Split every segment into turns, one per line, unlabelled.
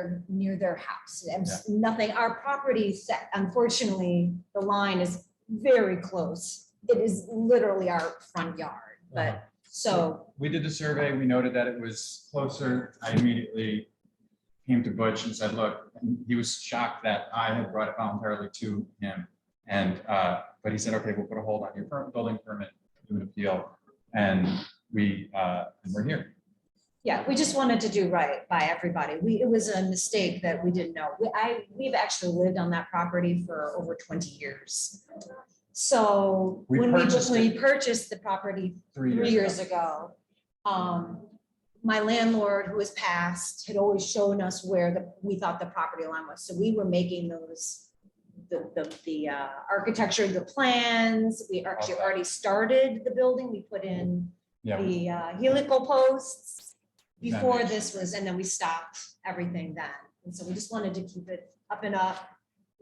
are near their house. And s- nothing, our property set, unfortunately, the line is very close. It is literally our front yard,
Uh-huh.
but so,
We did the survey, we noted that it was closer. I immediately came to Butch and said, look, and he was shocked that I had brought it voluntarily to him. And, uh, but he said, okay, we'll put a hold on your per- building permit, do an appeal. And we, uh, and we're here.
yeah, we just wanted to do right by everybody. We, it was a mistake that we didn't know. We, I, we've actually lived on that property for over twenty years. So
We
when we,
purchased
when
it.
we purchased the property three years ago. Um, my landlord, who has passed, had always shown us where the, we thought the property line was, so we were making those. The, the, the, uh, architecture, of the plans, we actually
Okay.
already started the building, we put in
Yeah,
the uh, helical posts.
Yeah.
Before this was, and then we stopped everything then, and so we just wanted to keep it up and up,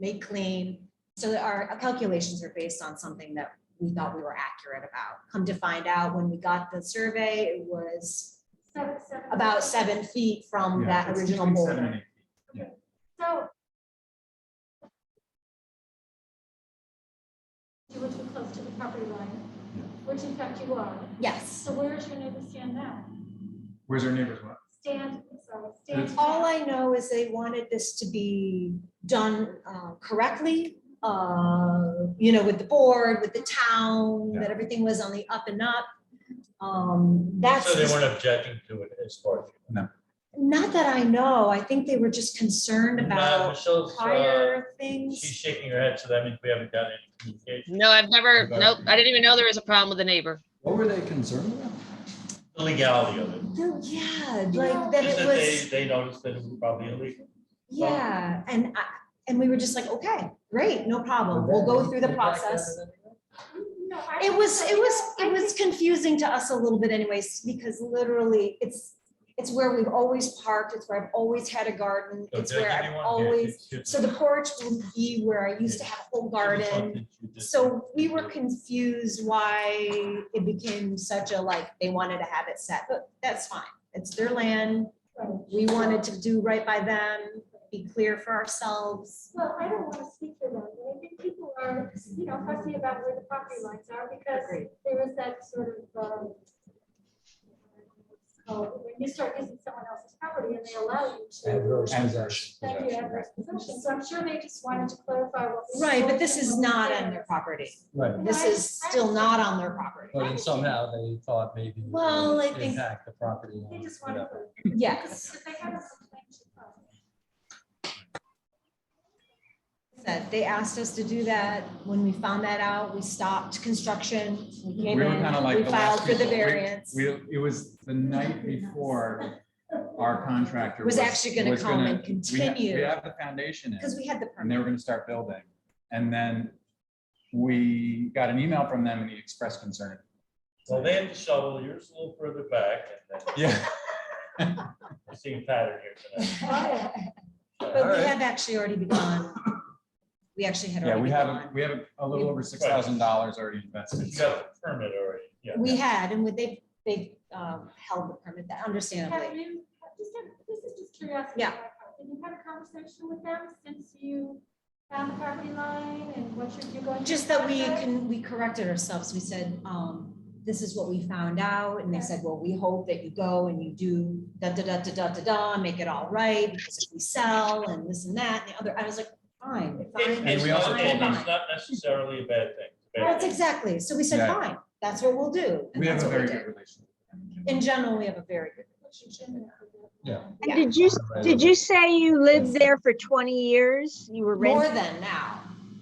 make clean. So that our calculations are based on something that we thought we were accurate about. Come to find out, when we got the survey, it was
Seven- seven-
about seven feet from
Yeah,
that
it's
original
between seven
boulder.
and eight feet.
So. You were too close to the property line, which in fact you are.
Yes.
So where is your neighbor stand now?
Where's our neighbor's one?
Stand, sorry, stand.
All I know is they wanted this to be done uh, correctly, uh, you know, with the board, with the town, that everything was on the up and up. Um, That's
So they weren't objecting to it as far as.
not that I know. I think they were just concerned
No,
about
Michelle's, uh,
prior things.
she's shaking her head, so that means we haven't done any communication.
No, I've never,
About-
nope, I didn't even know there was a problem with a neighbor.
What were they concerned about?
The legality of it.
No, Yeah, like that it
Just that
was.
they, they noticed that it was probably illegal. Well-
Yeah, and I, and we were just like, okay, great, no problem, we'll go through the process.
Mm, No, I-
It was, it was, it was confusing to us a little bit anyways, because literally, it's, it's where we've always parked, it's where I've always had a garden,
So
it's
Oh, did I
where
give you
I've
one? Yeah,
always,
it's- it's-
so the porch would be where I used to have a whole garden. So we were confused why it became such a like, they wanted to have it set, but that's fine. It's their land. We wanted to do right by them, be clear for ourselves.
Well, I don't want to speak for them, but I think people are, you know, fussy about where the property lines are because
Agreed.
there was that sort of, um, oh, when you start using someone else's property and they allow you to. Thank you, adverse possession. So I'm sure they just wanted to clarify what. we
Right, but
told
this
them
is
when we
not
said
on
it.
their property.
Right,
No,
This
I-
is still not on their property.
but then somehow they thought maybe. it would
Well, I think-
Impact the property.
They
line,
just wanted.
whatever.
to-
Yes.
If they have a complaint, you probably-
That they asked us to do that. When we found that out, we stopped construction. We
We
came
were
in,
kind of like
we
the last
filed for the
people. We-
variance.
We, it was the night before our contractor.
Was actually gonna
was
come and
gonna- we ha-
continue.
We have the foundation in,
Because we had the permit.
and they were gonna start building. And then we got an email from them and he expressed concern.
Well, they had to shovel, yours a little further back, and then
Yeah,
we're seeing pattern here tonight.
But we
Alright.
have actually already begun. We actually had
yeah,
already
we
begun.
have, we have a little over six thousand dollars already invested.
You got the permit already, yeah.
We had, and they, they um, held the permit, that
Have
understandably.
you, just, a- this is just curiosity.
Yeah.
on my part. Have you had a conversation with them since you found the property line and what you're you're going? to
Just that we
contract?
can, we corrected ourselves. We said, um, this is what we found out. And they said, well, we hope that you go and you do da, da, da, da, da, da, da, make it all right. Because if we sell and this and that and the other, I was like, fine, fine.
It-
And
It's
we also
not
told
it's
fine,
them-
fine.
not necessarily a bad thing. It's a bad
That's
thing.
exactly. So we said,
Yeah.
fine, that's what we'll do. and
We have
that's
a
what
very
did.
good relationship. with them.
In general, we have a very good relationship.
Yeah.
Yeah.
And did you, did you say you lived there for 20 years? You were
More
renting?
than now.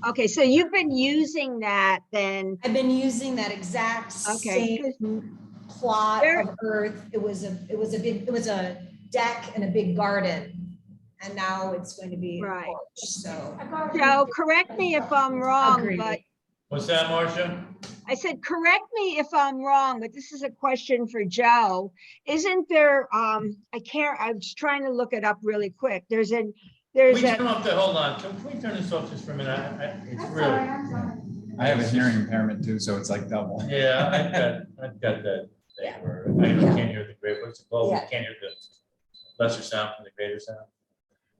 Okay, so you've been using that then,
I've been using that exact
Mm-hmm. okay.
same
'cause
plot
There-
of earth. It was a, it was a big, it was a deck and a big garden. And now it's going to be a
Right.
porch, so.
A garden.
So correct me if I'm wrong,
Agreed.
but
What's that, Marcia?
I said, correct me if I'm wrong, but this is a question for Joe. Isn't there, um, I can't, I was trying to look it up really quick. There's an,
We
there's a,
turn off the, hold on, can we turn this off just for a minute? I- I- It's
I'm sorry,
really,
I'm sorry.
I have a hearing impairment too, so it's like double.
yeah, I've got, I've got that thing where I can't hear the great, what's it called? We
Yeah.
can't hear the lesser sound from the greater sound.